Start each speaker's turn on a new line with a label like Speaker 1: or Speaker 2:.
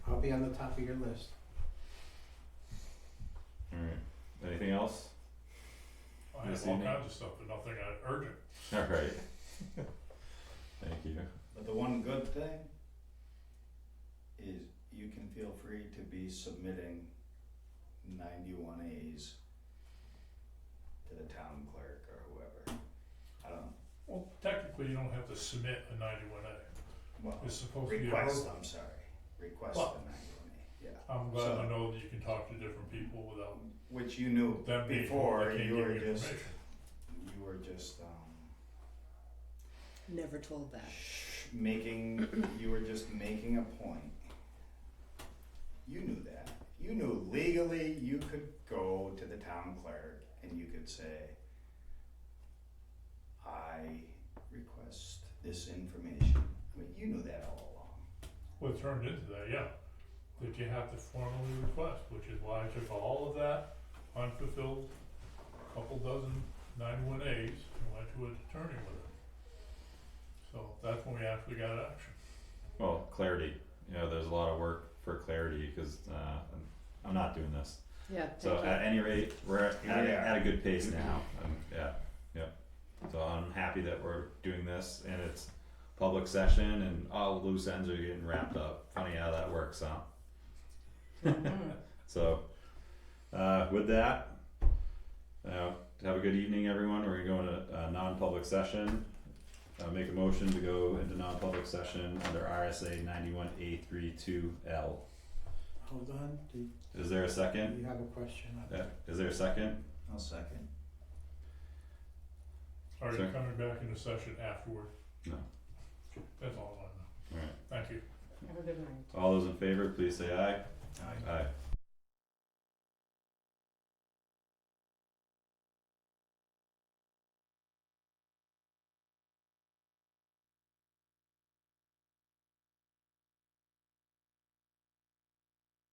Speaker 1: be on the top of your list.
Speaker 2: Alright, anything else?
Speaker 3: I have
Speaker 2: This
Speaker 3: all
Speaker 2: evening.
Speaker 3: kinds of stuff, but nothing uh, urgent.
Speaker 2: Alright. Thank you.
Speaker 4: But the one good thing is you can feel free to be submitting ninety-one As to the town clerk or whoever. I don't,
Speaker 3: Well, technically, you don't have to submit a ninety-one A.
Speaker 4: well,
Speaker 3: It's supposed to be a
Speaker 4: request,
Speaker 3: verbal.
Speaker 4: I'm sorry, request the
Speaker 3: Well-
Speaker 4: ninety-one A, yeah.
Speaker 3: I'm glad
Speaker 4: So-
Speaker 3: to know that you can talk to different people without
Speaker 4: Which you knew
Speaker 3: them being, told
Speaker 4: before,
Speaker 3: they can't
Speaker 4: you
Speaker 3: give
Speaker 4: were
Speaker 3: you
Speaker 4: just,
Speaker 3: information.
Speaker 4: you were just, um,
Speaker 5: Never told that.
Speaker 4: sh- making, you were just making a point. You knew that. You knew legally you could go to the town clerk and you could say, I request this information. I mean, you knew that all along.
Speaker 3: Well, it turned into that, yeah, that you have to formally request, which is why I took all of that unfulfilled, couple dozen ninety-one As and went to an attorney with it. So that's when we actually got action.
Speaker 2: Well, clarity, you know, there's a lot of work for clarity, cause uh, I'm- I'm not doing this.
Speaker 5: Yeah,
Speaker 2: So uh,
Speaker 5: thank you.
Speaker 2: at any rate, we're at,
Speaker 4: Here
Speaker 2: at,
Speaker 4: we
Speaker 2: a-
Speaker 4: are.
Speaker 2: at a good pace now, um, yeah, yep. So I'm happy that we're doing this and it's public session and all loose ends are getting wrapped up, funny how that works, huh?
Speaker 5: Mm-hmm.
Speaker 2: So, uh, with that, uh, have a good evening, everyone, we're gonna go into a non-public session. Uh, make a motion to go into non-public session under RSA ninety-one A three two L.
Speaker 1: Hold on, do you
Speaker 2: Is there a second?
Speaker 1: have a question on
Speaker 2: Uh, is there a second?
Speaker 4: I'll second.
Speaker 3: Are you
Speaker 2: Sir?
Speaker 3: coming back into session afterward?
Speaker 2: No.
Speaker 3: That's all I wanna know.
Speaker 2: Alright.
Speaker 3: Thank you.
Speaker 5: Have a good night.
Speaker 2: All those in favor, please say aye. Aye.